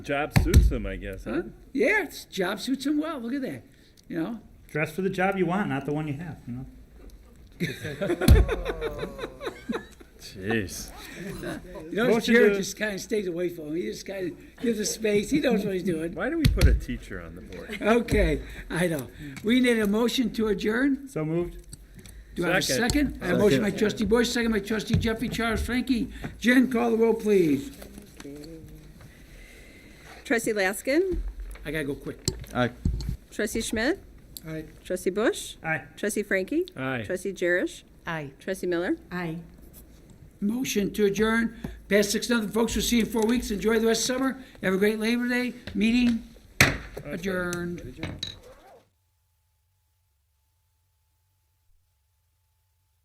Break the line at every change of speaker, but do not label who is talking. Job suits them, I guess, huh?
Huh? Yeah, it's, job suits him well. Look at that. You know,
Dress for the job you want, not the one you have. You know.
Jeez.
you notice
Motion
Jared
to-
just kind of stays away from him. He just kind of gives a space. He knows what he's doing.
Why do we put a teacher on the board?
Okay, I know. We need a motion to adjourn.
So moved.
Do I have a
Second.
second? I have a motion by trustee Bush, second by trustee Jeffrey Charles Frankie. Jen, call the roll, please.
Trustee Laskin,
I gotta go quick.
Trustee Schmidt,
Aye.
Trustee Bush,
Aye.
Trustee Frankie,
Aye.
Trustee Jerish,
Aye.
Trustee Miller.
Aye.
Motion to adjourn. Past six nothing, folks. We'll see you in four weeks. Enjoy the rest of summer. Have a great Labor Day. Meeting adjourned.